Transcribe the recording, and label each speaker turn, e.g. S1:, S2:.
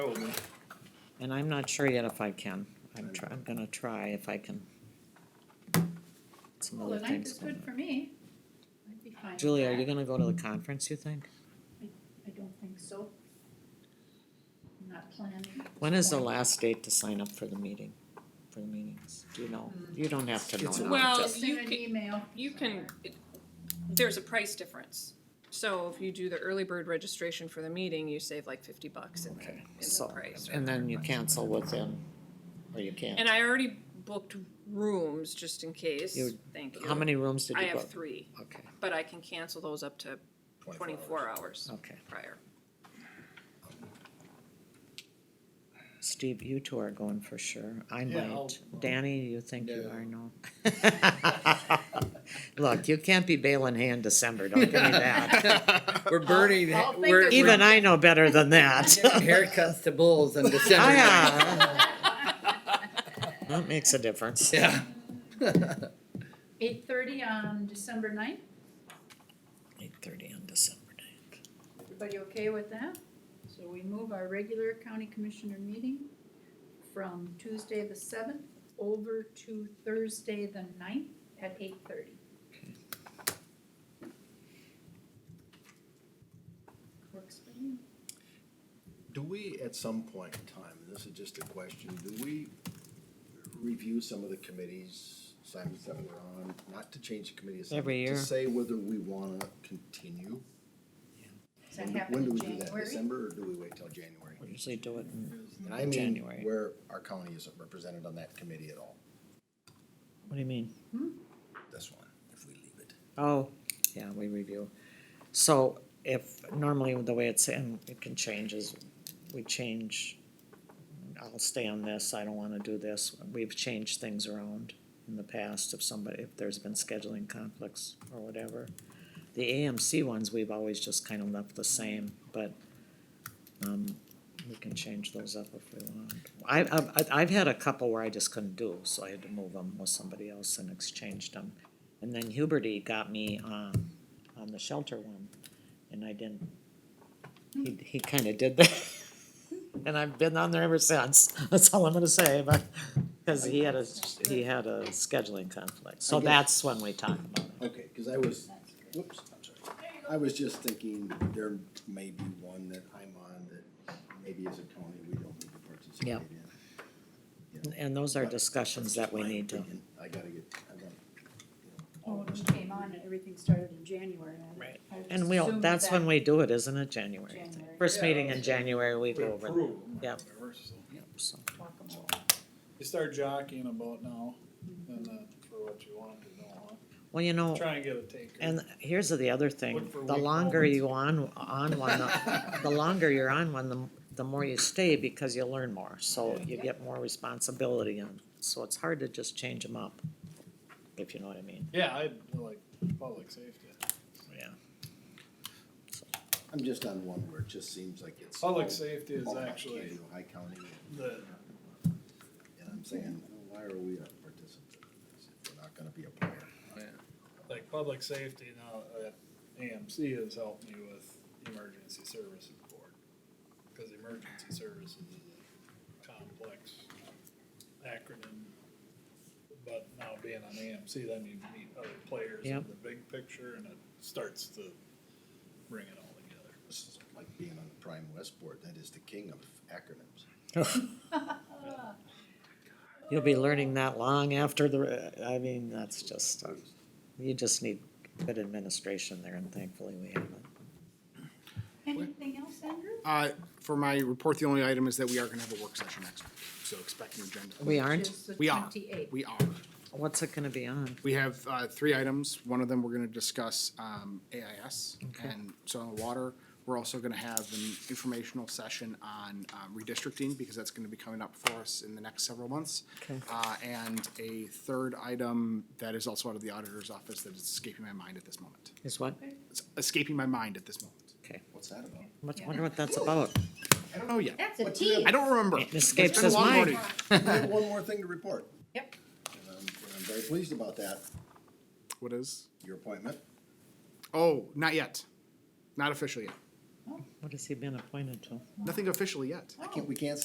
S1: And I'm not sure yet if I can. I'm try, I'm gonna try if I can. Some
S2: Well,
S1: other
S2: the ninth
S1: things
S2: is
S1: going
S2: good
S1: on.
S2: for me. I'd be fine.
S1: Julie, are you gonna go to the conference, you think?
S2: I don't think so. I'm Not planning.
S1: When is the last date to sign up for the meeting, for the meetings? Do you know?
S2: Hmm.
S1: You don't have to know.
S3: It's-
S1: now,
S4: Well,
S1: just-
S2: Just send
S4: you
S2: an
S4: can-
S2: email.
S4: You can, it- there's a price difference. So if you do the early bird registration for the meeting, you save like fifty bucks in the,
S1: Okay,
S4: in the
S1: so,
S4: price. or
S1: and then you
S4: whatever.
S1: cancel within, or you can't.
S4: And I already booked rooms just in case,
S1: You-
S4: thank you.
S1: How many rooms did
S4: I
S1: you
S4: have
S1: book?
S4: three,
S1: Okay,
S4: but I can cancel those up to twenty-four hours
S1: okay.
S4: prior.
S1: Steve, you two are going for sure. I
S3: Yeah, I'll-
S1: might. Danny, you think you
S3: No.
S1: are? No. Look, you can't be bailing hay in December, don't give me that.
S5: We're burning,
S2: I'll- I'll think
S5: we're,
S2: of
S1: Even
S5: we're
S1: I know better than that.
S5: giving haircuts to bulls in December.
S1: Ah, yeah. That makes a difference.
S5: Yeah.
S2: Eight thirty on December ninth.
S1: Eight thirty on December ninth.
S2: Everybody okay with that? So we move our regular county commissioner meeting from Tuesday the seventh over to Thursday the ninth at eight thirty. Works for me.
S3: Do we, at some point in time, and this is just a question, do we review some of the committees, assignments that we're on, not to change the committee assignment?
S1: Every year.
S3: To say whether we wanna continue?
S2: Does that
S3: When-
S2: happen in
S3: When do we do that,
S2: January?
S3: December, or do we wait till January?
S1: We usually do it in,
S3: And I mean,
S1: January.
S3: where our county isn't represented on that committee at all,
S1: what do you mean?
S3: this one, if we leave it.
S1: Oh, yeah, we review. So if, normally the way it's, and it can change is, we change, I'll stay on this, I don't wanna do this. We've changed things around in the past if somebody, if there's been scheduling conflicts or whatever. The AMC ones, we've always just kind of left the same, but, um, we can change those up if we want. I, I've, I've had a couple where I just couldn't do, so I had to move them with somebody else and exchanged them. And then Huberty got me um, on the shelter one, and I didn't. He, he kind of did that, and I've been on there ever since. That's all I'm gonna say, but because he had a he had a scheduling conflict, so
S3: I get it.
S1: that's when we talk about it.
S3: Okay, cause I was, whoops, I'm sorry. I was just thinking there may be one that I'm on that maybe as a county, we don't need to participate
S1: Yeah.
S3: in.
S1: And those are discussions that we need to.
S3: I gotta get, I gotta.
S2: Oh, when we came on, everything started in January. I-
S1: Right.
S2: I would
S1: And we'll,
S2: assume
S1: that's
S2: that
S1: when we do it, isn't it? January.
S2: January.
S1: First
S6: Yeah,
S1: meeting
S6: that's
S1: in
S6: right.
S1: January, we
S6: We
S1: go over.
S6: approve them,
S1: Yep.
S6: whatever, so.
S1: Yep, so.
S2: Talk about
S6: You start jockeying about now, and uh, for what you want to know,
S1: Well, you
S6: huh?
S1: know,
S6: Try and get a taker.
S1: Oh. And here's the other thing,
S6: Look for
S1: the
S6: weak
S1: longer
S6: moments.
S1: you on, on one, the- the longer you're on one, the, the more you stay because you learn more. So you get more responsibility and, so it's hard to just change them up, if you know what I mean,
S6: Yeah, I like public safety.
S1: yeah.
S3: I'm just on one where it just seems like it's. all-
S6: Public safety is
S3: all I can
S6: actually
S3: do, High county,
S6: the,
S3: and I'm saying, why are we a participant in this if we're not gonna be a player?
S6: like, public safety now, at AMC has helped me with emergency services board. Cause emergency services is a complex acronym. But now being on AMC, then you meet other players in
S1: Yep.
S6: the big picture and it starts to bring it all together.
S3: This is like being on the Prime West Board, that is the king of acronyms.
S2: Uh,
S1: You'll be learning that long after the, uh, I mean, that's just, uh, you just need good administration there and thankfully we have it.
S2: Anything else, Andrew?
S7: Uh, for my report, the only item is that we are gonna have a work session next week, so expect an agenda.
S1: We aren't,
S2: Just the
S7: We are,
S2: 28th.
S7: we are.
S1: what's it gonna be on?
S7: We have, uh, three items. One of them, we're gonna discuss, um, AIS and soil and water. We're also gonna have an informational session on, um, redistricting, because that's gonna be coming up for us in the next several months.
S1: Okay.
S7: Uh, and a third item that is also out of the auditor's office that is escaping my mind at this moment.
S1: Is what?
S7: It's escaping my mind at this moment.
S1: Okay,
S3: What's that about?
S1: I wonder what that's about.
S7: I don't know yet.
S2: That's a tease.
S7: I don't remember.
S1: It escapes
S7: It's been a
S1: his
S7: long
S1: mind.
S7: morning.
S3: I have one more thing to report.
S2: Yep.
S3: And I'm, and I'm very pleased about that,
S7: What is?
S3: your appointment.
S7: Oh, not yet. Not official yet.
S8: What has he been appointed to?
S1: Nothing officially yet.
S7: I can't, we can't